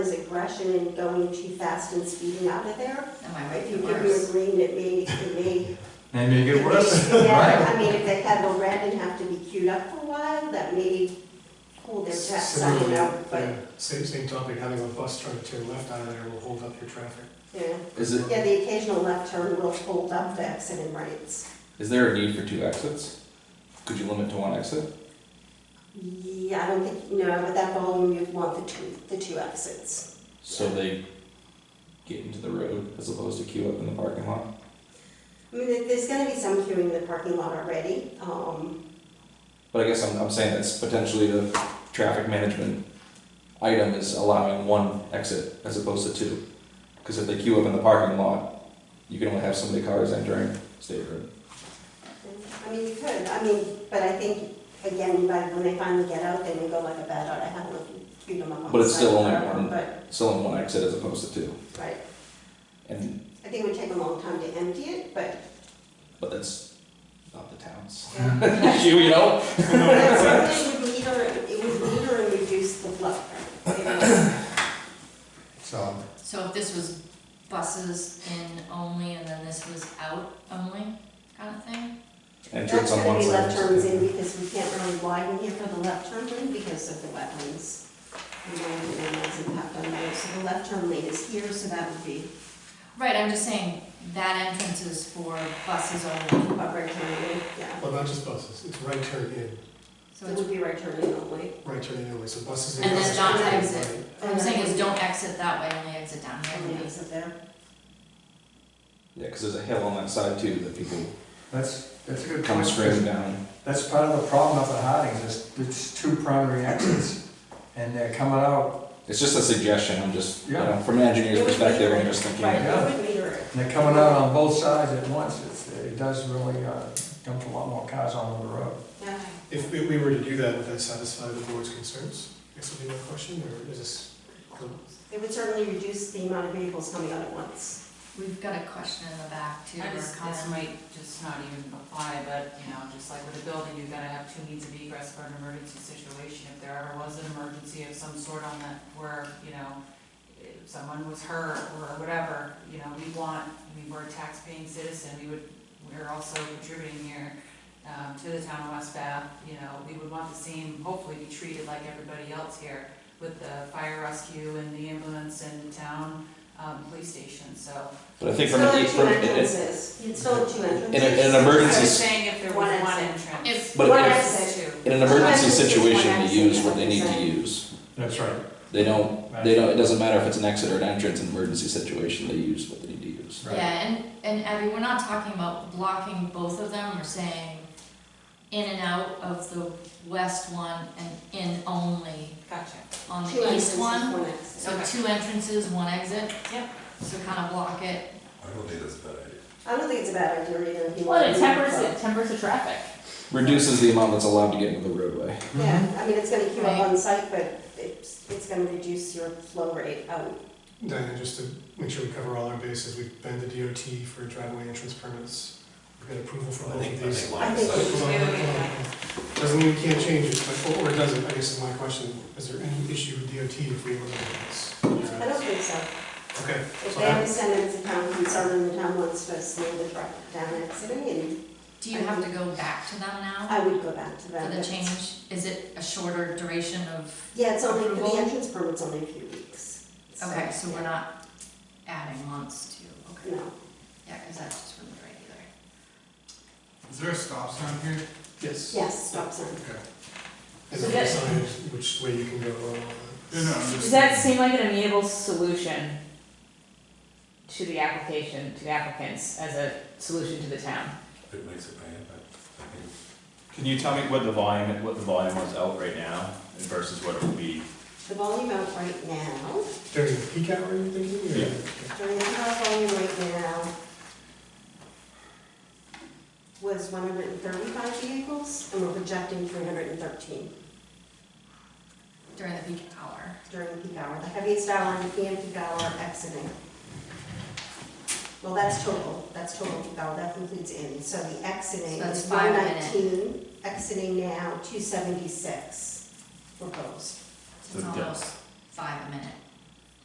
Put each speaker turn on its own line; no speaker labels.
is aggression and going too fast and speeding out of there.
Am I right?
If you
It
give me a
works.
green, it may, it may.
And make it worse,
Yeah,
right?
I mean, if they had the red and have to be queued up for a while, that may pull their jets, I don't
Similarly,
know, but,
yeah, Same, same topic, having a bus trying to turn left out of there will hold up your traffic.
yeah.
Is it,
Yeah, the occasional left turn will hold up the accident rates.
is there a need for two exits? Could you limit to one exit?
Yeah, I don't think, no, with that volume, you'd want the two, the two exits.
So they get into the road as opposed to queue up in the parking lot?
I mean, there- there's gonna be some queuing in the parking lot already, um,
But I guess I'm, I'm saying that's potentially the traffic management item is allowing one exit as opposed to two. Because if they queue up in the parking lot, you can only have so many cars entering state road.
I mean, you could, I mean, but I think, again, by, when they finally get out, they may go like a bat out, I haven't looked, queued them up on
But
the
it's still
site
only
forever,
one.
But,
It's only one exit as opposed to two.
right,
And,
I think it would take a long time to empty it, but.
but that's not the town's
yeah.
issue, you know?
That's something would meter, it would meter and reduce the flow.
So,
So if this was buses in only and then this was out only kind of thing?
Entrance on
That's gonna
one
be
side.
left turns in because we can't really widen here for the left turn lane because of the wetlands. And then the wetlands impact on there, so the left turn lane is here, so that would be
Right, I'm just saying that entrance is for buses only,
about right turn lane, yeah.
Well, not just buses, it's right turn in,
So
so
it
it's,
would be right turn lane only.
right turn in only, so buses and
And
buses.
then not
turn in
exit.
right.
what I'm saying is don't exit that way, only exit down here.
And the exit there.
Yeah, because there's a hill on that side too that people
that's, that's a good
come
question.
screaming down.
That's part of the problem up at Harding's, is it's two primary exits, and they're coming out,
It's just a suggestion, I'm just, you
Yeah.
know, from an engineer's
It would
perspective,
meter
I'm
it.
just thinking.
Right,
yeah.
it would meter it.
and they're coming out on both sides at once, it's, it does really, uh, dump a lot more cars onto the road.
Yeah.
If we we were to do that, would that satisfy the board's concerns? I guess would be my question, or is this?
It would certainly reduce the amount of vehicles coming out at once.
We've got a question in the back too, or
I just, this
comment.
might just not even apply, but, you know, just like with a building, you gotta have two means of egress for an emergency situation. If there ever was an emergency of some sort on that, where, you know, if someone was hurt or whatever, you know, we want, I mean, we're a tax-paying citizen, we would, we're also contributing here, um, to the town of West Bath, you know, we would want the same, hopefully be treated like everybody else here with the fire rescue and the ambulance and the town, um, police station, so.
But I think from an, e-
Still
from,
have two
in,
entrances, you'd still have two entrances.
in an
I'm
emergency,
saying if there was
One
one
exit.
entrance.
If,
But
One
if-
exit.
in an emergency situation, they use what they need to use.
That's right.
They don't, they don't, it doesn't matter if it's an exit or an entrance, in an emergency situation, they use what they need to use.
Right.
yeah, and, and Abby, we're not talking about blocking both of them, we're saying in and out of the west one and in only
Gotcha.
on
Two
the
entrances,
east one.
one exit.
So
Okay.
two entrances, one exit?
Yep.
So kind of block it.
I don't think that's a bad idea.
I don't think it's a bad idea either. if you
Well,
want
it
to
tempers,
do
it tempers the traffic.
Reduces the amount that's allowed to get into the roadway.
Yeah, I mean, it's gonna keep up
Right.
on site, but it's, it's gonna reduce your flow rate out.
Diana, just to make sure we cover all our bases, we've been to DOT for driveway entrance permits, we've got approval for
I
all of
think, I
these.
think line
I
of
think
sight.
Hold on, hold on, hold on. Doesn't mean we can't change it, but, or it doesn't, I guess is my question, is there any issue with DOT if we eliminate
I don't
this?
think so.
Okay,
If
so
they have a
that,
sentence of town concern and the town wants to slow the truck down exiting, and
Do you have to go back to them now
I would go back to
for
that.
the change? Is it a shorter duration of,
Yeah, it's only, for
Approval?
the entrance permit's only a few weeks.
okay, so we're not adding months to, okay.
No,
Yeah, because that just wouldn't be right either.
Is there a stop sign here?
yes.
yes, stop sign.
Is there a sign which way you can go or all that?
No, no, I'm just.
Does that seem like an amenable solution to the application, to the applicants, as a solution to the town?
If It makes it bad, but I think it's-
Can you tell me what the volume, what the volume was out right now versus what it will be?
The volume out right now,
During the peak hour, you're thinking? or-
Yeah.
during the high volume right now, was one hundred and thirty-five vehicles, and we're projecting three hundred and thirteen.
During the peak hour.
during the peak hour, the heaviest hour and the peak hour exiting. Well, that's total, that's total peak hour, that concludes in, so the exiting
So that's
is
five
one
a minute.
nineteen, exiting now, two seventy-six proposed.
so It's
So, yeah.
almost five a minute.